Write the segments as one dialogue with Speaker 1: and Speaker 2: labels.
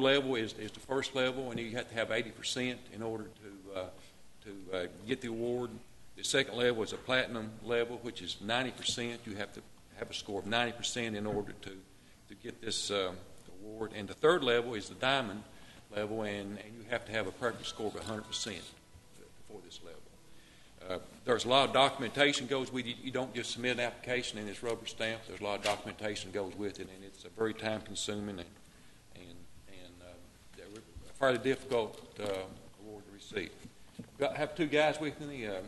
Speaker 1: level is, is the first level, and you have to have eighty percent in order to, uh, to uh, get the award. The second level is a platinum level, which is ninety percent. You have to have a score of ninety percent in order to, to get this um, award. And the third level is the diamond level, and, and you have to have a perfect score of hundred percent for this level. Uh, There's a lot of documentation goes with it. You don't just submit an application and it's rubber stamped. There's a lot of documentation goes with it, and it's uh, very time-consuming and, and, and uh, that we're- a fairly difficult uh, award to receive. Got, have two guys with me, um,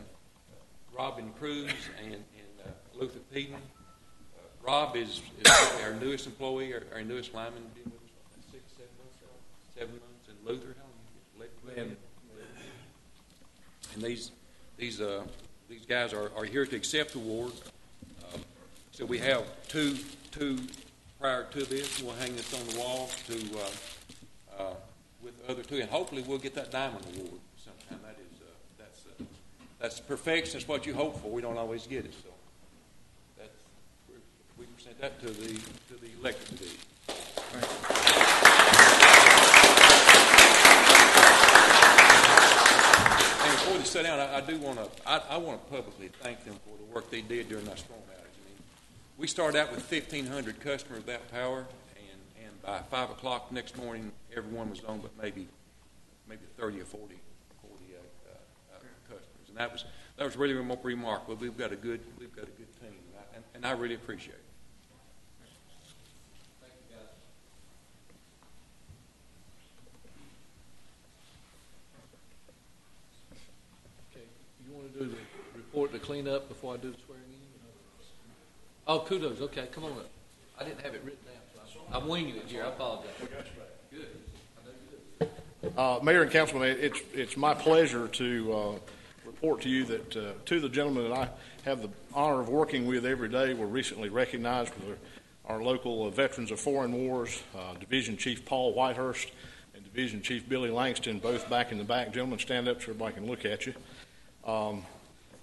Speaker 1: Robin Cruz and, and uh, Luther Peden. Uh, Rob is, is probably our newest employee, our, our newest lineman, been with us what, six, seven months, seven months, and Luther, how long you been? Eleven. And these, these, uh, these guys are, are here to accept the award. Um, So we have two, two prior to this, we'll hang this on the wall to, uh, uh, with the other two, and hopefully we'll get that diamond award sometime. That is, uh, that's, uh, that's perfection, it's what you hope for, we don't always get it, so. That's, we- we present that to the, to the elected division. And before they sit down, I, I do want to, I, I want to publicly thank them for the work they did during that storm outage. I mean, we started out with fifteen hundred customers without power, and, and by five o'clock next morning, everyone was on, but maybe, maybe thirty or forty, forty, uh, uh, uh, customers. And that was, that was really remo- remarkable. We've got a good, we've got a good team, and I- and, and I really appreciate it.
Speaker 2: Okay, you want to do the report, the cleanup before I do the swearing in? Oh, kudos, okay, come on up. I didn't have it written down, so I'm I'm winging it here, I apologize. Good.
Speaker 3: Uh, Mayor and Councilman, it- it's, it's my pleasure to uh, report to you that uh, two of the gentlemen that I have the honor of working with every day were recently recognized with our our local uh, Veterans of Foreign Wars, uh, Division Chief Paul Whitehurst and Division Chief Billy Langston, both back in the back. Gentlemen, stand up so everybody can look at you. Um,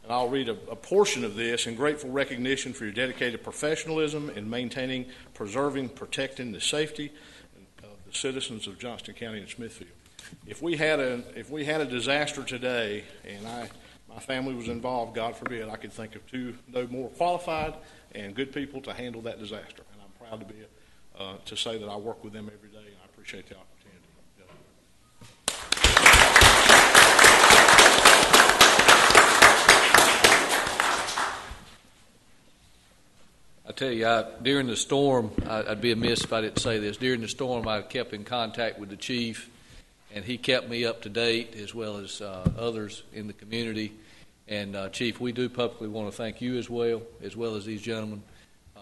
Speaker 3: And I'll read a a portion of this, in grateful recognition for your dedicated professionalism in maintaining, preserving, protecting the safety of the citizens of Johnston County and Smithfield if we had a if we had a disaster today and I my family was involved, God forbid, I could think of two no more qualified and good people to handle that disaster. And I'm proud to be uh, to say that I work with them every day and I appreciate the opportunity.
Speaker 2: I tell you, I, during the storm, I, I'd be amiss if I didn't say this. During the storm, I kept in contact with the chief, and he kept me up to date as well as uh, others in the community. And uh, Chief, we do publicly want to thank you as well, as well as these gentlemen.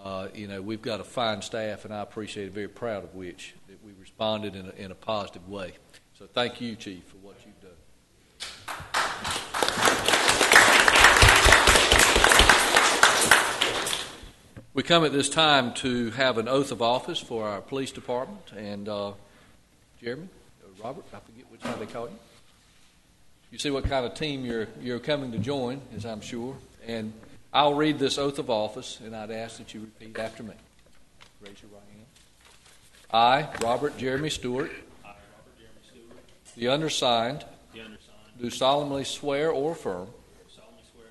Speaker 2: Uh, you know, we've got a fine staff, and I appreciate it. Very proud of which that we responded in a, in a positive way. So thank you, Chief, for what you've done. We come at this time to have an oath of office for our police department, and uh, Jeremy, uh, Robert, I forget which one they call you. You see what kind of team you're, you're coming to join, as I'm sure, and I'll read this oath of office, and I'd ask that you repeat after me. Raise your right hand. I, Robert Jeremy Stewart,
Speaker 4: I, Robert Jeremy Stewart,
Speaker 2: the undersigned,
Speaker 4: the undersigned,
Speaker 2: do solemnly swear or affirm
Speaker 4: solemnly swear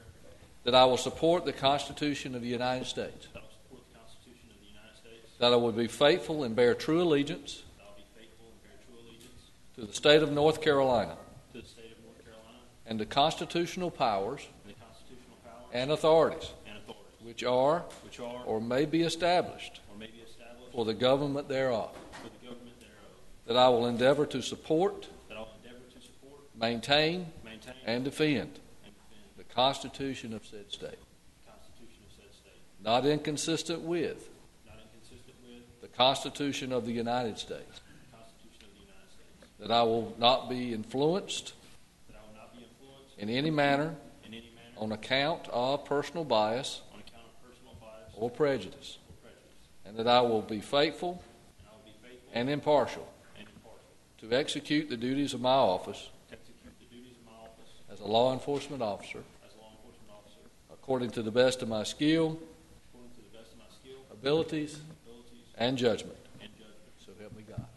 Speaker 4: that
Speaker 2: that I will support the Constitution of the United States,
Speaker 4: I will support the Constitution of the United States,
Speaker 2: that I will be faithful and bear true allegiance
Speaker 4: that I will be faithful and bear true allegiance
Speaker 2: to the state of North Carolina,
Speaker 4: to the state of North Carolina
Speaker 2: and the constitutional powers
Speaker 4: and the constitutional powers
Speaker 2: and authorities
Speaker 4: and authorities
Speaker 2: which are
Speaker 4: which are
Speaker 2: or may be established
Speaker 4: or may be established
Speaker 2: for the government thereof,
Speaker 4: for the government thereof,
Speaker 2: that I will endeavor to support,
Speaker 4: that I will endeavor to support,
Speaker 2: maintain,
Speaker 4: maintain,
Speaker 2: and defend
Speaker 4: and defend
Speaker 2: the Constitution of said state,
Speaker 4: the Constitution of said state,
Speaker 2: not inconsistent with
Speaker 4: not inconsistent with
Speaker 2: the Constitution of the United States,
Speaker 4: the Constitution of the United States,
Speaker 2: that I will not be influenced
Speaker 4: that I will not be influenced
Speaker 2: in any manner
Speaker 4: in any manner
Speaker 2: on account of personal bias
Speaker 4: on account of personal bias or
Speaker 2: or prejudice,
Speaker 4: prejudice,
Speaker 2: and that I will be faithful
Speaker 4: and I will be faithful
Speaker 2: and impartial
Speaker 4: and impartial
Speaker 2: to execute the duties of my office
Speaker 4: to execute the duties of my office
Speaker 2: as a law enforcement officer
Speaker 4: as a law enforcement officer
Speaker 2: according to the best of my skill,
Speaker 4: According to the best of my skill,
Speaker 2: abilities,
Speaker 4: abilities,
Speaker 2: and judgment.
Speaker 4: and judgment.
Speaker 2: So help me God.